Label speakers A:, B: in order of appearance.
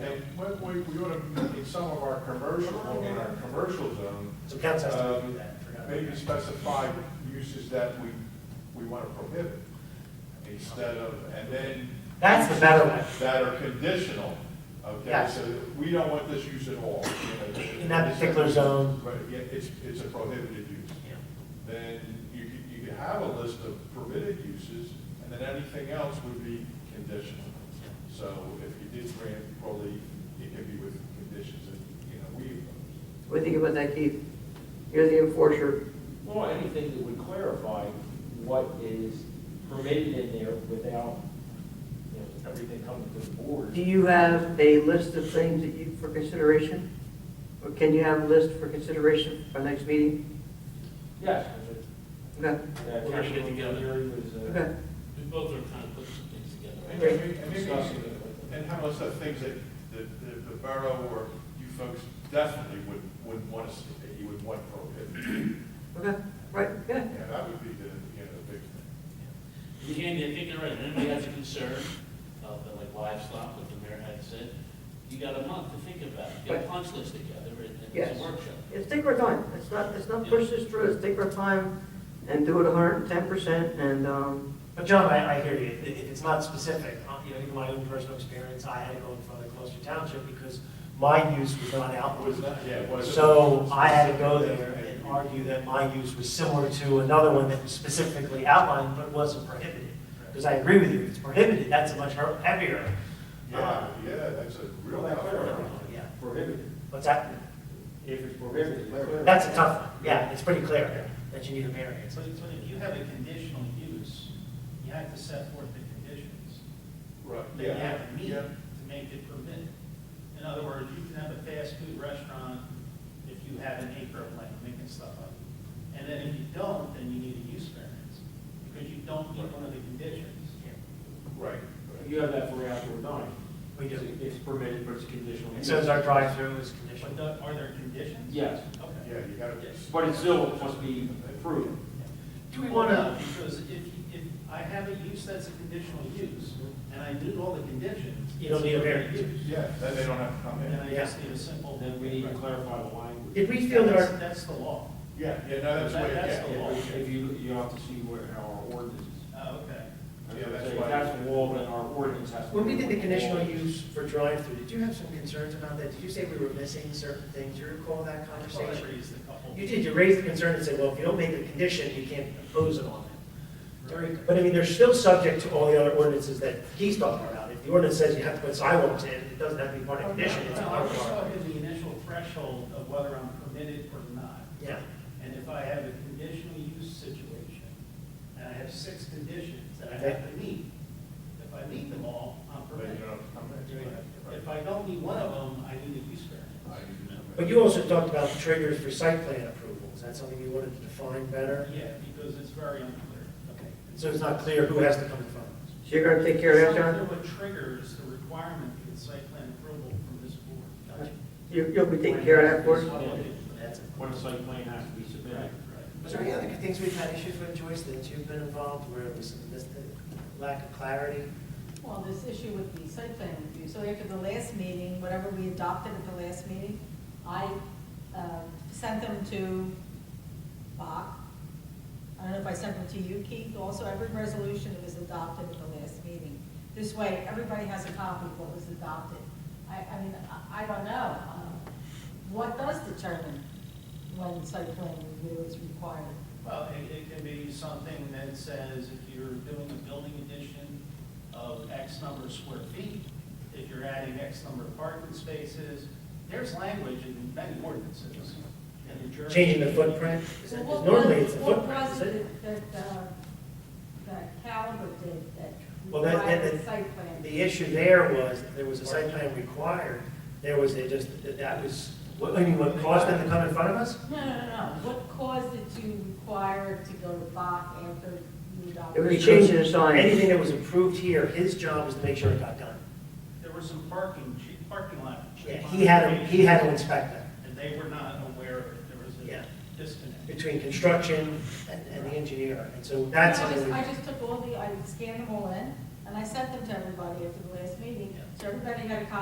A: And what we, we ought to, in some of our commercial, in our commercial zone,
B: So council has to
A: um,
B: do that, I forgot.
A: maybe specify uses that we, we want to prohibit instead of, and then.
B: That's the better way.
A: That are conditional, okay?
B: Yes.
A: So we don't want this use at all. you know,
B: In that particular zone.
A: Right, yeah, it's, it's a prohibited use
B: Yeah.
A: then you could, you could have a list of permitted uses, and then anything else would be conditional. So if you did grant relief, it could be with conditions that, you know, we impose.
C: What do you think about that, Keith? You're the enforcer.
D: Well, anything that would clarify what is permitted in there without, you know, everything coming to the board.
C: Do you have a list of things that you, for consideration? Or can you have a list for consideration for next meeting?
D: Yes.
C: Okay,
D: We're
E: We're gonna get together.
D: uh,
C: okay.
E: We both are kind of putting some things together.
A: And
E: right?
A: maybe, and maybe, and how much of things that, that that the borough or you folks definitely would, wouldn't want to see, that you would want prohibited.
C: Okay, right, yeah.
A: Yeah, that would be the, you know, the big thing.
E: You can't, you can't, right, anybody has a concern, uh, but like livestock, what the mayor had said, you got a month to think about it, get a
C: Right.
E: punch list together and, and
C: Yes.
E: it's a workshop.
C: It's take our time. It's not, it's not push this through. It's take our time and do it hundred and ten percent and, um,
B: But John, I, I hear you, if if it's not specific, uh, you know, even my own personal experience, I had to go in front of Gloucester Township because my use was not out.
A: Was not- yeah, it wasn't-
B: So I had to go there and argue that my use was similar to another one that was specifically outlined but wasn't prohibited. Because I agree with you, if it's prohibited, that's a much hea- heavier. uh,
A: Ah, Yeah, yeah, that's a real.
D: Well, that
A: tough
D: clarifies.
A: one.
B: Yeah,
D: Prohibited,
B: what's that?
D: if it's prohibited. it's
B: That's a tough one, yeah, it's pretty clear that you need a variance.
F: But if, but if you have a conditional use, you have to set forth the conditions
A: Right,
F: that you
A: yeah,
F: have to meet
A: yeah.
F: to make it permitted. In other words, you can have a fast food restaurant if you have an acre of land, making stuff up. And then if you don't, then you need a use variance, because you don't meet one of the conditions.
A: Right, right.
D: You have that for outdoor dining.
B: We do.
D: It's permitted, but it's conditional.
B: And
D: use.
B: so is our drive-through is conditional.
F: But the- are there conditions?
D: Yes,
F: Okay.
A: Yeah, you gotta.
D: but it still must be approved.
F: Do we want to? Because if, you- if I have a use that's a conditional use, and I meet all the conditions.
B: You don't need a variance.
F: it's permitted use.
A: Yeah, then they don't have to come
F: And then
A: in.
F: I just need a simple.
D: Then we need to clarify the language.
B: Did we feel that
F: That's,
B: our,
F: that's the law.
A: Yeah, yeah, no, that's what,
F: That's
A: yeah.
F: the law.
A: yeah,
D: If you, you have to see where our ordinance is.
F: Oh, okay.
A: Yeah, that's
D: If
A: why-
D: That's the law, then our ordinance has to.
G: When we
D: be
G: did the
D: what law
G: conditional
D: is.
G: use for drive-through, did you have some concerns about that? Did you say we were missing certain things? Do you recall that conversation?
F: Conversations, the couple.
G: You did, you raised the concern and said, well, if you don't make it a condition, you can't impose it on them. But I mean, they're still subject to all the other ordinances that he's talking about. If the ordinance says you have to put sidewalks in, it doesn't have to be part of the condition, it's
F: No,
G: part
F: I
G: of
F: was
G: our.
F: talking the initial threshold of whether I'm permitted or not.
G: Yeah,
F: And if I have a conditional use situation, and I have six conditions that I have to meet, if I meet them all, I'm
A: Then
F: permitted.
A: you don't come in.
F: If I don't meet one of them, I need a use variance.
A: I didn't know.
G: but you also talked about the triggers for site plan approval. Is that something you wanted to define better?
F: Yeah, because it's very unclear. Okay.
G: So it's not clear who has to come in front of us.
C: so you're gonna take care of that,
F: It's
C: John?
F: unclear What triggers the requirement to get site plan approval from this board? Gotcha.
C: You, you'll be taking care of that for us?
G: That's it.
D: What a site plan has to be submitted.
F: Right, right.
G: Was there any other things we've had issues with, Joyce, that you've been involved where it was mis- the lack of clarity?
H: Well, this issue with the site plan review, so after the last meeting, whatever we adopted at the last meeting, I uh, sent them to Bach. I don't know if I sent them to you, Keith, also every resolution that was adopted at the last meeting. This way, everybody has a copy of what was adopted. I, I mean, I- I don't know, uh, what does determine when site plan review is required?
F: Well, it, it can be something that says if you're doing a building addition of X number of square feet, if you're adding X number of parking spaces, there's language in many ordinances. in New Jersey.
G: Changing the footprint? Is
H: So
G: that-
H: what
G: 'cause Normally,
H: was-
G: it's the
H: What
G: footprint,
H: was
G: is it?
H: it that, that, uh, that Caliber did that
G: Well, that- that-
H: required
G: that-
H: site plan?
G: The issue there was, that there was a site plan required, there was a just, that- that was, what, I mean, what caused them to come in front of us?
H: No, no, no, no, what caused it to require to go to Bach after you
C: It
H: adopted?
C: was
G: Because
C: changing the sign.
G: Anything that was approved here, his job was to make sure it got done.
F: There was some parking, che- parking lot.
G: Yeah, He had, to- he had to inspect that,
F: And they were not aware of it, there was
G: Yeah.
F: a disconnect.
G: between construction and, and the engineer, and so
H: I
G: that's.
H: just,
G: something we-
H: I just took all the, I scanned them all in, And I sent them to everybody after the last meeting, so everybody got a copy